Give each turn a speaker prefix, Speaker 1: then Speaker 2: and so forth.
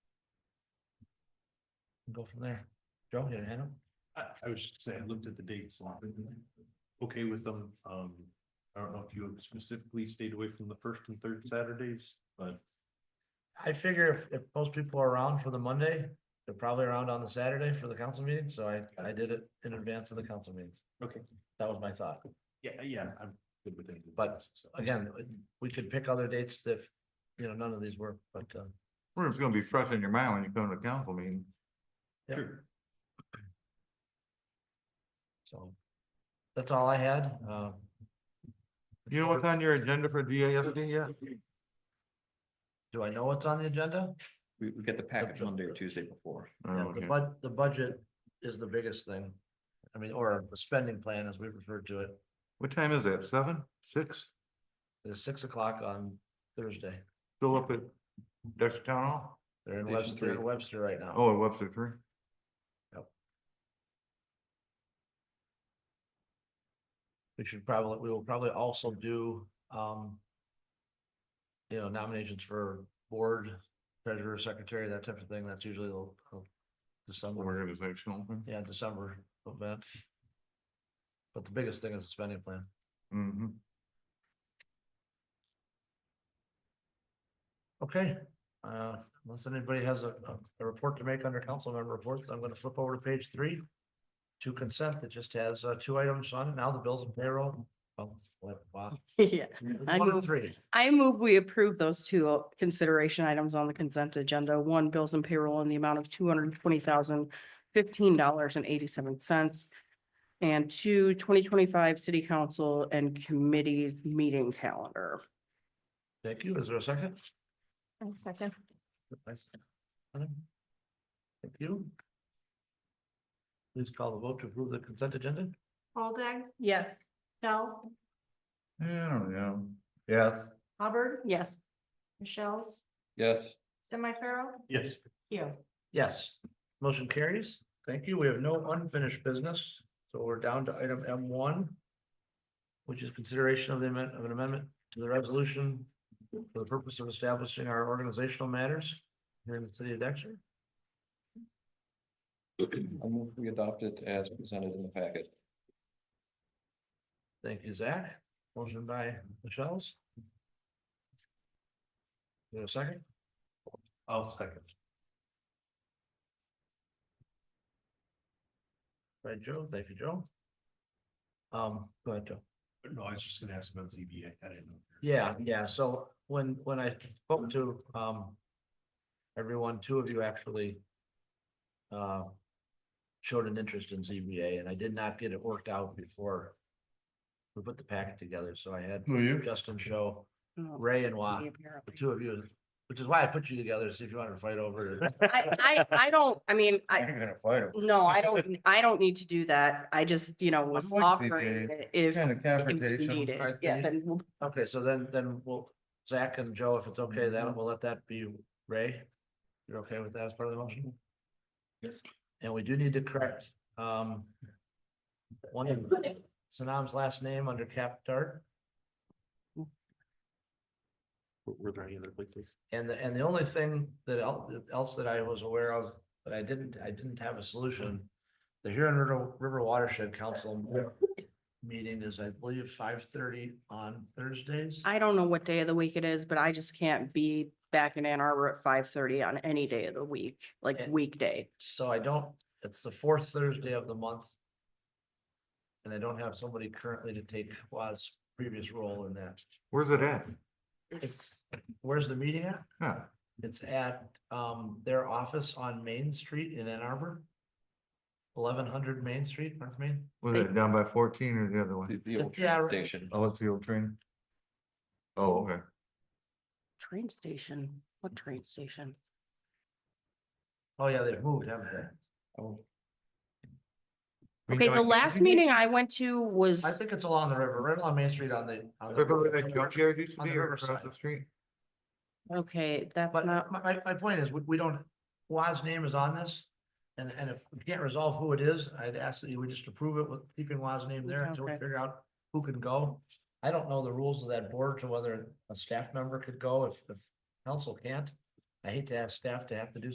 Speaker 1: Go from there. Joe, you had a hand up?
Speaker 2: I, I was just saying, I looked at the dates, a lot. okay with them, um, I don't know if you have specifically stayed away from the first and third Saturdays, but.
Speaker 1: I figure if, if most people are around for the Monday, they're probably around on the Saturday for the council meeting, so I, I did it in advance of the council meetings.
Speaker 2: Okay.
Speaker 1: That was my thought.
Speaker 2: Yeah, yeah, I'm good with it.
Speaker 1: But- Again, we could pick other dates if, you know, none of these were, but, um,
Speaker 3: Or it's gonna be fresh in your mind when you come to council meeting.
Speaker 1: yeah.
Speaker 2: Sure.
Speaker 1: so. That's all I had, um.
Speaker 3: You know what's on your agenda for DASD yet?
Speaker 1: Do I know what's on the agenda?
Speaker 4: We, we get the package
Speaker 1: the-
Speaker 4: Monday or Tuesday before.
Speaker 3: Oh,
Speaker 1: Yeah, The
Speaker 3: okay.
Speaker 1: bud, the budget is the biggest thing. I mean, or the spending plan as we refer to it,
Speaker 3: What time is that? Seven, six?
Speaker 1: is six o'clock on Thursday.
Speaker 3: Still up at Dexter Town Hall?
Speaker 1: They're in
Speaker 4: Station
Speaker 1: Webster, they're in
Speaker 4: three.
Speaker 1: Webster right now.
Speaker 3: Oh, at Webster three?
Speaker 1: We should probably, we will probably also do, um. You know, nominations for board, treasurer, secretary, that type of thing. That's usually the the December,
Speaker 3: Organizational.
Speaker 1: yeah, December event. But the biggest thing is the spending plan.
Speaker 3: Mm-hmm.
Speaker 1: Okay, uh, unless anybody has a, a, a report to make under council member reports, I'm gonna flip over to page three. To consent that just has, uh, two items on it. Now the bills and payroll. Oh, what, wow.
Speaker 5: Yeah, I
Speaker 1: One of
Speaker 5: move-
Speaker 1: the three.
Speaker 5: I move we approve those two uh, consideration items on the consent agenda. One, bills and payroll in the amount of two hundred and twenty thousand fifteen dollars and eighty-seven cents. And two, 2025 city council and committees meeting calendar.
Speaker 1: Thank you. Is there a second?
Speaker 5: Second.
Speaker 1: Nice. Thank you. Please call the vote to approve the consent agenda.
Speaker 6: Waldeck,
Speaker 5: Yes.
Speaker 6: Shell,
Speaker 3: Yeah, I don't know. Yes.
Speaker 6: Hubbard,
Speaker 5: Yes.
Speaker 6: Michelle's,
Speaker 4: Yes,
Speaker 6: semi-feral,
Speaker 2: Yes,
Speaker 6: Hugh.
Speaker 1: Yes, motion carries. Thank you. We have no unfinished business, so we're down to item M one. Which is consideration of the amendment of an amendment to the resolution for the purpose of establishing our organizational matters here in the city of Dexter.
Speaker 4: I move we adopt it as presented in the packet.
Speaker 1: Thank you, Zach. Motion by Michelle's. You have a second?
Speaker 2: I'll second.
Speaker 1: By Joe. Thank you, Joe. Um, go ahead, Joe.
Speaker 2: No, I was just gonna ask about ZBA, I didn't know.
Speaker 1: Yeah, yeah, so when, when I spoke to, um. Everyone, two of you actually. Uh. Showed an interest in ZBA and I did not get it worked out before. We put the packet together, so I had
Speaker 3: Who are you?
Speaker 1: Justin show, Ray and Wa, the two of you, which is why I put you together, see if you wanted to fight over it.
Speaker 5: I, I, I don't, I mean, I,
Speaker 3: I'm gonna fight him.
Speaker 5: no, I don't, I don't need to do that. I just, you know, was
Speaker 3: like the
Speaker 5: offering
Speaker 3: idea.
Speaker 5: it if
Speaker 3: Kind
Speaker 5: it
Speaker 3: of
Speaker 5: was
Speaker 3: confrontation.
Speaker 5: needed.
Speaker 1: Alright,
Speaker 5: Yeah,
Speaker 1: then
Speaker 5: then we'll
Speaker 1: Okay, so then, then we'll, Zach and Joe, if it's okay, then we'll let that be Ray. You're okay with that as part of the motion?
Speaker 2: Yes.
Speaker 1: And we do need to correct, um. One of Sanam's last name under cap dart,
Speaker 2: Were- Were there any other places?
Speaker 1: and the, and the only thing that el- else that I was aware of, that I didn't, I didn't have a solution. The Huron River- River Watershed Council meeting is, I believe, five thirty on Thursdays.
Speaker 5: I don't know what day of the week it is, but I just can't be back in Ann Arbor at five thirty on any day of the week, like
Speaker 1: Yeah.
Speaker 5: weekday.
Speaker 1: So I don't, it's the fourth Thursday of the month. And I don't have somebody currently to take Wa's previous role in that.
Speaker 3: Where's it at?
Speaker 1: It's, where's the meeting at?
Speaker 3: Huh,
Speaker 1: It's at um their office on Main Street in Ann Arbor. Eleven hundred Main Street, North Main.
Speaker 3: was it down by fourteen or the other
Speaker 4: The,
Speaker 3: one?
Speaker 4: the old
Speaker 1: Yeah,
Speaker 4: train
Speaker 1: right.
Speaker 4: station.
Speaker 3: Oh, it's the old train. Oh, okay.
Speaker 5: Train station, what train station?
Speaker 1: Oh, yeah, they've moved, haven't they?
Speaker 4: Oh,
Speaker 3: We
Speaker 5: Okay,
Speaker 3: know
Speaker 5: the
Speaker 3: it-
Speaker 5: last meeting I went to was,
Speaker 1: I think it's along the river, right along Main Street on the. on the-
Speaker 3: Remember where that junkyard used to
Speaker 1: on
Speaker 3: be
Speaker 1: the
Speaker 3: or across
Speaker 1: riverside.
Speaker 3: the street?
Speaker 5: okay, that's
Speaker 1: But my,
Speaker 5: not,
Speaker 1: my, my point is, we, we don't, Wa's name is on this. And, and if we can't resolve who it is, I'd ask that you would just approve it with keeping Wa's name there until we
Speaker 5: Okay.
Speaker 1: figure out who can go. I don't know the rules of that board to whether a staff member could go if, if council can't. I hate to have staff to have to do